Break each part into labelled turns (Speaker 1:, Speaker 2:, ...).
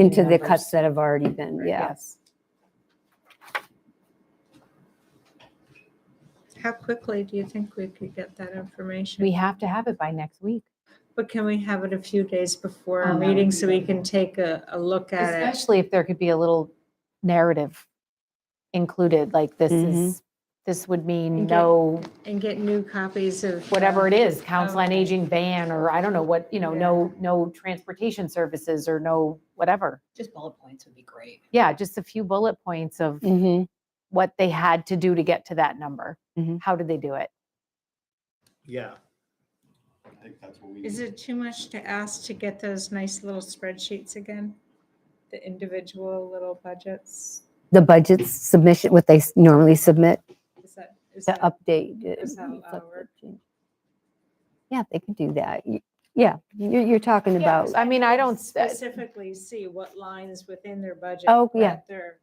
Speaker 1: into the
Speaker 2: numbers.
Speaker 1: cuts that have already been, yeah.
Speaker 2: Yes.
Speaker 3: How quickly do you think we could get that information?
Speaker 2: We have to have it by next week.
Speaker 3: But can we have it a few days before
Speaker 2: Oh,
Speaker 3: our
Speaker 2: that would
Speaker 3: meeting
Speaker 2: be
Speaker 3: so we can take a, a look at it?
Speaker 2: Especially if there could be a little narrative included, like this is, this would mean
Speaker 3: And get-
Speaker 2: no,
Speaker 3: And get new copies of.
Speaker 2: whatever it
Speaker 3: um,
Speaker 2: is, council on
Speaker 3: okay.
Speaker 2: aging ban, or I don't know what, you know,
Speaker 3: Yeah.
Speaker 2: no, no transportation services or no whatever.
Speaker 4: Just bullet points would be great.
Speaker 2: Yeah, just a few bullet points of
Speaker 1: Mm-hmm.
Speaker 2: what they had to do to get to that number.
Speaker 1: Mhm.
Speaker 2: How did they do it?
Speaker 5: Yeah. I think that's what we.
Speaker 3: Is
Speaker 5: need.
Speaker 3: it too much to ask to get those nice little spreadsheets again? The individual little budgets?
Speaker 1: The budgets submission, what they s- normally submit
Speaker 3: Is that? is
Speaker 1: to
Speaker 3: that-
Speaker 1: update. it,
Speaker 3: Is that
Speaker 1: reflect
Speaker 3: how it
Speaker 1: the
Speaker 3: works?
Speaker 1: change. Yeah, they could do that. Y- Yeah, you're, you're talking about,
Speaker 2: I mean, I don't, s- uh,
Speaker 3: Specifically see what lines within their budget.
Speaker 1: Oh, yeah.
Speaker 3: that They're.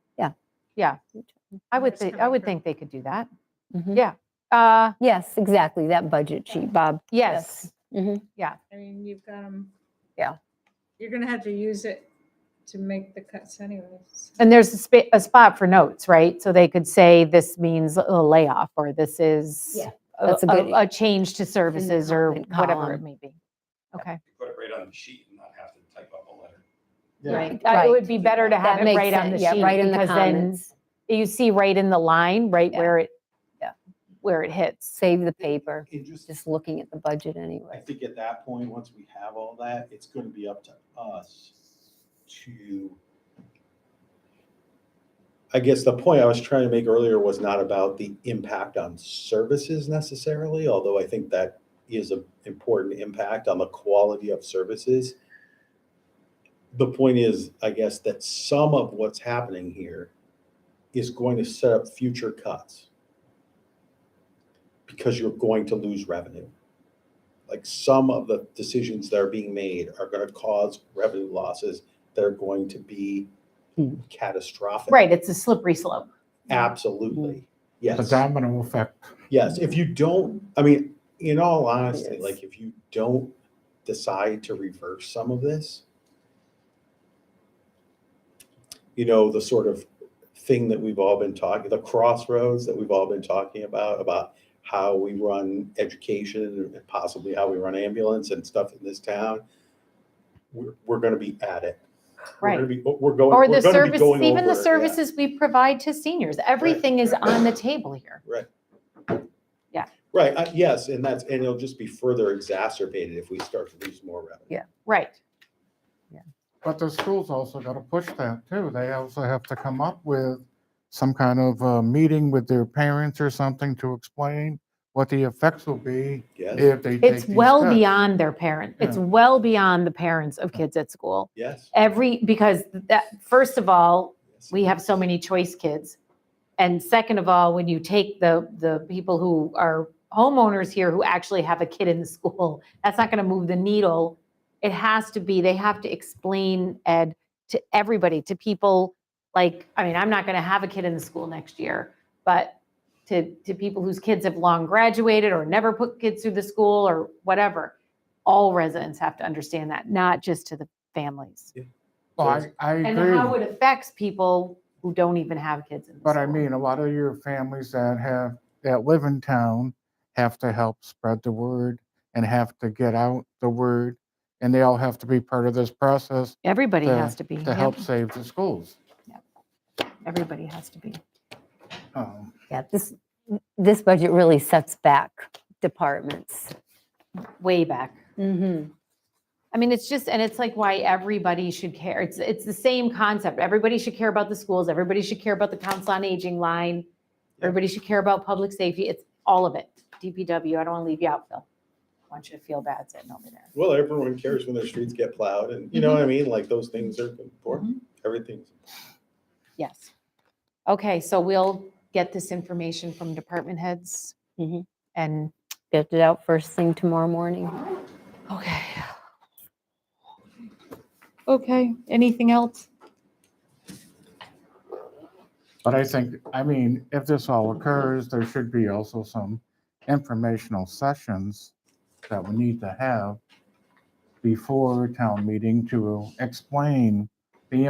Speaker 2: I would
Speaker 3: it's
Speaker 2: think, I
Speaker 3: coming
Speaker 2: would
Speaker 3: from-
Speaker 2: think they could do that.
Speaker 1: Mhm.
Speaker 2: Yeah. Uh,
Speaker 1: yes, exactly, that budget sheet, Bob.
Speaker 2: yes,
Speaker 1: Mhm.
Speaker 3: I mean, you've got them.
Speaker 1: Yeah.
Speaker 3: You're gonna have to use it to make the cuts anyways.
Speaker 2: and there's a spa, a spot for notes, right? So they could say this means a layoff, or this is
Speaker 1: Yeah,
Speaker 2: a,
Speaker 1: that's a good-
Speaker 2: a- a change to services, or
Speaker 1: comment
Speaker 2: whatever it
Speaker 1: column.
Speaker 2: may be. Okay.
Speaker 6: put it right on the sheet and not have to type up a letter.
Speaker 5: Yeah.
Speaker 2: Uh, It
Speaker 1: Right.
Speaker 2: would be better to have
Speaker 1: That
Speaker 2: it
Speaker 1: makes
Speaker 2: right on the
Speaker 1: sense. Yeah,
Speaker 2: sheet,
Speaker 1: right in the
Speaker 2: because then
Speaker 1: comments.
Speaker 2: You see right in the line, right
Speaker 1: Yeah.
Speaker 2: where it,
Speaker 1: Yeah.
Speaker 2: where it hits.
Speaker 1: Save the paper,
Speaker 5: And just,
Speaker 1: just looking at the budget
Speaker 5: I
Speaker 1: anyway.
Speaker 5: think at that point, once we have all that, it's gonna be up to us to. I guess the point I was trying to make earlier was not about the impact on services necessarily, although I think that is an important impact on the quality of services. The point is, I guess, that some of what's happening here is going to set up future cuts. Because you're going to lose revenue like some of the decisions that are being made are going to cause revenue losses that are going to be
Speaker 1: Hmm.
Speaker 5: catastrophic.
Speaker 2: Right, it's a slippery slope.
Speaker 5: Absolutely.
Speaker 7: The
Speaker 5: Yes.
Speaker 7: domino effect.
Speaker 5: Yes. If you don't, I mean, in all honesty,
Speaker 1: Yes.
Speaker 5: like if you don't decide to reverse some of this, you know, the sort of thing that we've all been talking, the crossroads that we've all been talking about, about how we run education and possibly how we run ambulance and stuff in this town, we're, we're going to be at it. We're gonna
Speaker 2: Right.
Speaker 5: be- We're going.
Speaker 2: Or
Speaker 5: we're
Speaker 2: the
Speaker 5: gonna be
Speaker 2: service,
Speaker 5: going
Speaker 2: even
Speaker 5: over
Speaker 2: the
Speaker 5: it, yeah.
Speaker 2: services we provide to seniors, everything is on the table here.
Speaker 5: Right, I- yes, and that's, and it'll just be further exacerbated if we start to lose more revenue.
Speaker 1: Yeah.
Speaker 2: Right.
Speaker 7: But the school's also got to push that too. They also have to come up with some kind of uh meeting with their parents or something to explain what the effects will be
Speaker 5: Yes,
Speaker 7: if they take
Speaker 2: It's
Speaker 7: these
Speaker 2: well
Speaker 7: steps.
Speaker 2: beyond their parent. It's
Speaker 7: Yeah.
Speaker 2: well beyond the parents of kids at school.
Speaker 5: yes.
Speaker 2: Every, because that, first of all,
Speaker 5: yes.
Speaker 2: we have so many choice kids. And second of all, when you take the, the people who are homeowners here who actually have a kid in the school, that's not going to move the needle. It has to be, they have to explain, Ed, to everybody, to people like, I mean, I'm not going to have a kid in the school next year, but to, to people whose kids have long graduated or never put kids through the school or whatever, all residents have to understand that, not just to the families
Speaker 7: Well, I, I
Speaker 2: and
Speaker 7: agree.
Speaker 2: how it affects people who don't even have kids in the
Speaker 7: But I
Speaker 2: school.
Speaker 7: mean, a lot of your families that have, that live in town have to help spread the word and have to get out the word. And they all have to be part of this process
Speaker 2: everybody
Speaker 7: to-
Speaker 2: has to be
Speaker 7: to
Speaker 2: yep,
Speaker 7: help save the schools.
Speaker 2: everybody has to be
Speaker 7: Um,
Speaker 1: Yeah, this, this budget really sets back departments.
Speaker 2: way back
Speaker 1: Mm-hmm.
Speaker 2: i mean it's just and it's like why everybody should care it's it's the same concept everybody should care about the schools everybody should care about the council on aging line everybody should care about public safety it's all of it dpw i don't want to leave you out phil i want you to feel bad sitting over there
Speaker 5: Well, everyone cares when their streets get plowed and, you know what I mean? Like those things are important.
Speaker 2: Mm-hmm.
Speaker 5: Everything's
Speaker 2: Yes. Okay, so we'll get this information from department heads.
Speaker 1: Mhm.
Speaker 2: And,
Speaker 1: Get it out first thing tomorrow morning.
Speaker 2: okay. Okay, anything else?
Speaker 7: But I think, I mean, if this all occurs, there should be also some informational sessions that we need to have before town meeting to explain